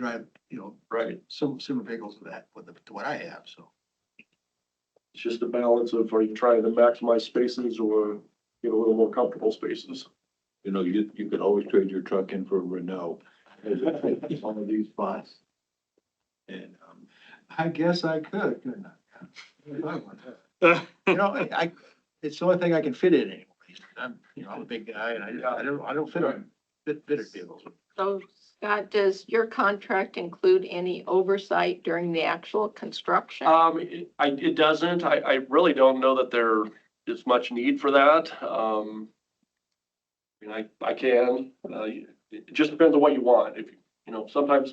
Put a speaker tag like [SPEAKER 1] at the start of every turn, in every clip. [SPEAKER 1] drive, you know,
[SPEAKER 2] Right,
[SPEAKER 1] some similar vehicles to that, with the, to what I have, so.
[SPEAKER 2] it's just a balance of are you trying to maximize spaces or get a little more comfortable spaces?
[SPEAKER 3] You know, you, you could always trade your truck in for a Renault. Some of these spots. And, um,
[SPEAKER 1] I guess I could, couldn't I? If I wanted to. You know, I, I- it's the only thing I can fit in anyways. I'm, you know, I'm a big guy and I, I don't, I don't fit on, fit, fitted vehicles.
[SPEAKER 4] So Scott, does your contract include any oversight during the actual construction?
[SPEAKER 2] Um, it- I, it doesn't, I, I really don't know that there is much need for that, um. I mean, I, I can, uh, it it just depends on what you want, if, you know, sometimes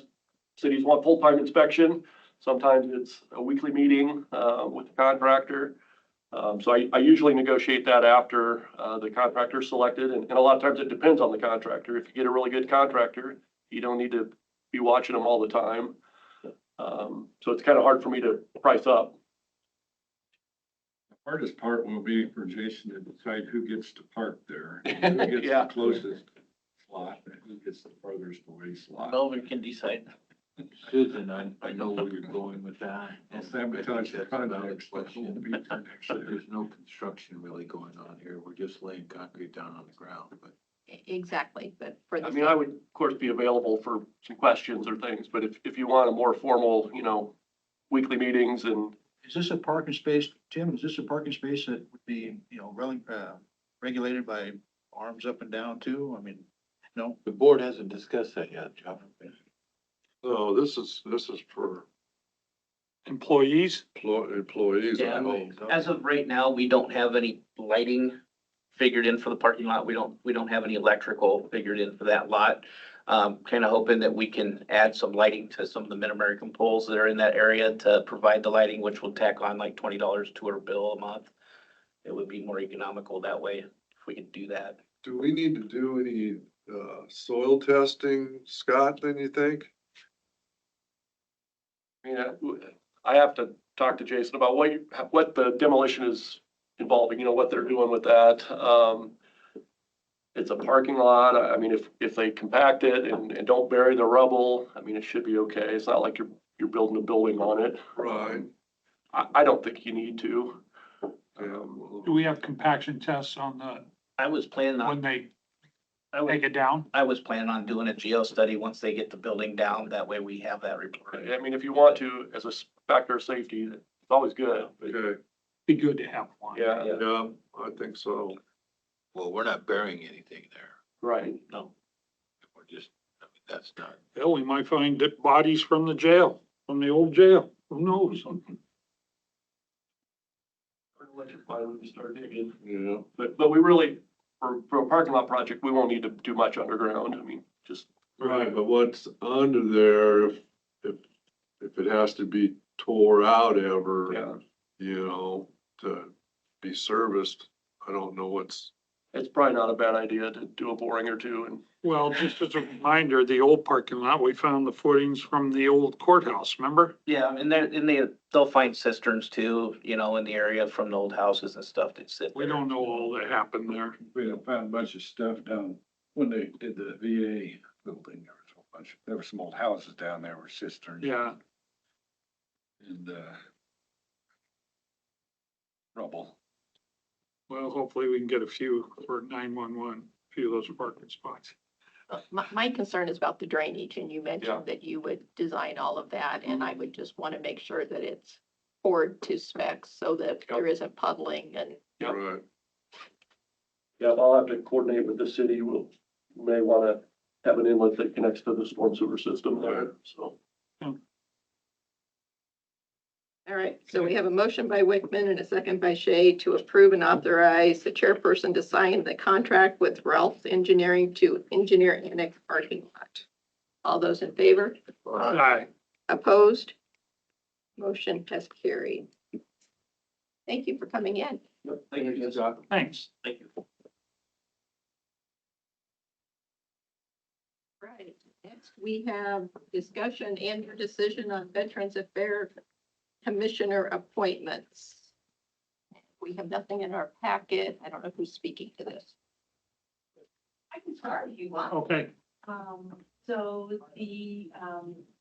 [SPEAKER 2] cities want full-time inspection, sometimes it's a weekly meeting, uh, with the contractor. Um, so I, I usually negotiate that after, uh, the contractor's selected, and, and a lot of times it depends on the contractor, if you get a really good contractor, you don't need to be watching them all the time. Um, so it's kind of hard for me to price up.
[SPEAKER 5] Hardest part will be for Jason to decide who gets to park there, and who gets
[SPEAKER 2] Yeah.
[SPEAKER 5] the closest slot, and who gets the furthest away slot.
[SPEAKER 6] Melvin can decide.
[SPEAKER 3] Susan, I, I know where you're going with that.
[SPEAKER 5] I'll
[SPEAKER 3] and I
[SPEAKER 5] Sabotage
[SPEAKER 3] think
[SPEAKER 5] the
[SPEAKER 3] that's a valid
[SPEAKER 5] contracts, but will
[SPEAKER 3] question.
[SPEAKER 5] be for next year.
[SPEAKER 3] There's no construction really going on here. We're just laying concrete down on the ground, but
[SPEAKER 4] E- Exactly, but for
[SPEAKER 2] I
[SPEAKER 4] the,
[SPEAKER 2] mean, I would, of course, be available for some questions or things, but if, if you want a more formal, you know, weekly meetings and,
[SPEAKER 1] Is this a parking space, Tim, is this a parking space that would be, you know, rel- uh, regulated by arms up and down too? I mean, no?
[SPEAKER 3] the board hasn't discussed that yet, Jeff.
[SPEAKER 5] So this is, this is for
[SPEAKER 7] employees.
[SPEAKER 5] employees,
[SPEAKER 6] I Yeah. As of right now, we don't have any lighting figured in for the parking lot. We don't, we don't have any electrical figured in for that lot. Um, kind of hoping that we can add some lighting to some of the Mid-American poles that are in that area to provide the lighting, which will tack on like twenty dollars to our bill a month. It would be more economical that way if we could do that.
[SPEAKER 5] Do we need to do any, uh, soil testing, Scott, then you think?
[SPEAKER 2] you know, uh, I have to talk to Jason about what, you- what the demolition is involving, you know, what they're doing with that. Um, it's a parking lot. I I mean, if, if they compact it and, and don't bury the rubble, I mean, it should be okay. It's not like you're, you're building a building on it.
[SPEAKER 5] Right.
[SPEAKER 2] I, I don't think you need to. Um,
[SPEAKER 7] Do we have compaction tests on the,
[SPEAKER 6] I was planning
[SPEAKER 7] when
[SPEAKER 6] on,
[SPEAKER 7] they
[SPEAKER 6] I was,
[SPEAKER 7] take it down?
[SPEAKER 6] I was planning on doing a geo study once they get the building down. That way we have that report.
[SPEAKER 2] I mean, if you want to, as a s- factor of safety, it's always good. but-
[SPEAKER 5] Okay,
[SPEAKER 7] Be good to have one.
[SPEAKER 2] Yeah,
[SPEAKER 5] yeah, I think so.
[SPEAKER 3] Well, we're not burying anything there.
[SPEAKER 2] right.
[SPEAKER 6] No.
[SPEAKER 3] We're just, I mean, that's not.
[SPEAKER 7] Hell, we might find that bodies from the jail, from the old jail. Who knows?
[SPEAKER 5] Yeah.
[SPEAKER 2] But, but we really, for, for a parking lot project, we won't need to do much underground. I mean, just,
[SPEAKER 5] Right, but what's under there, if, if, if it has to be tore out
[SPEAKER 2] yeah,
[SPEAKER 5] ever, you know, to be serviced, I don't know what's.
[SPEAKER 2] it's probably not a bad idea to do a boring or two and,
[SPEAKER 7] Well, just as a reminder, the old parking lot, we found the footings from the old courthouse, remember?
[SPEAKER 6] Yeah, and they're, and they, they'll find cisterns too, you know, in the area from the old houses and stuff that sit
[SPEAKER 7] We
[SPEAKER 6] there.
[SPEAKER 7] don't know all that happened there.
[SPEAKER 5] We found a bunch of stuff down, when they did the VA building, there was a whole bunch, there were some old houses down there were cisterns.
[SPEAKER 7] Yeah,
[SPEAKER 5] And, uh, rubble.
[SPEAKER 7] well, hopefully we can get a few for nine-one-one, a few of those parking spots.
[SPEAKER 4] my, my concern is about the drainage and you mentioned that you would design all of that and
[SPEAKER 2] Mm-hmm.
[SPEAKER 4] I would just want to make sure that it's poured to specs so that there isn't puddling and
[SPEAKER 2] Yep.
[SPEAKER 5] Right.
[SPEAKER 2] yeah, I'll have to coordinate with the city. We'll, may want to have an inlet that connects to the storm sewer system there, so.
[SPEAKER 4] All right, so we have a motion by Wickman and a second by Shea to approve and authorize the chairperson to sign the contract with Ralph Engineering to engineer annex parking lot. All those in favor?
[SPEAKER 7] Aye.
[SPEAKER 4] Opposed? Motion has carried. Thank you for coming in.
[SPEAKER 6] Thank you, Scott.
[SPEAKER 7] Thanks.
[SPEAKER 6] Thank you.
[SPEAKER 4] Right, next we have discussion and your decision on Veterans Affairs Commissioner appointments. We have nothing in our packet. I don't know who's speaking to this. I can start if you want.
[SPEAKER 7] Okay.
[SPEAKER 8] Um, so the, um,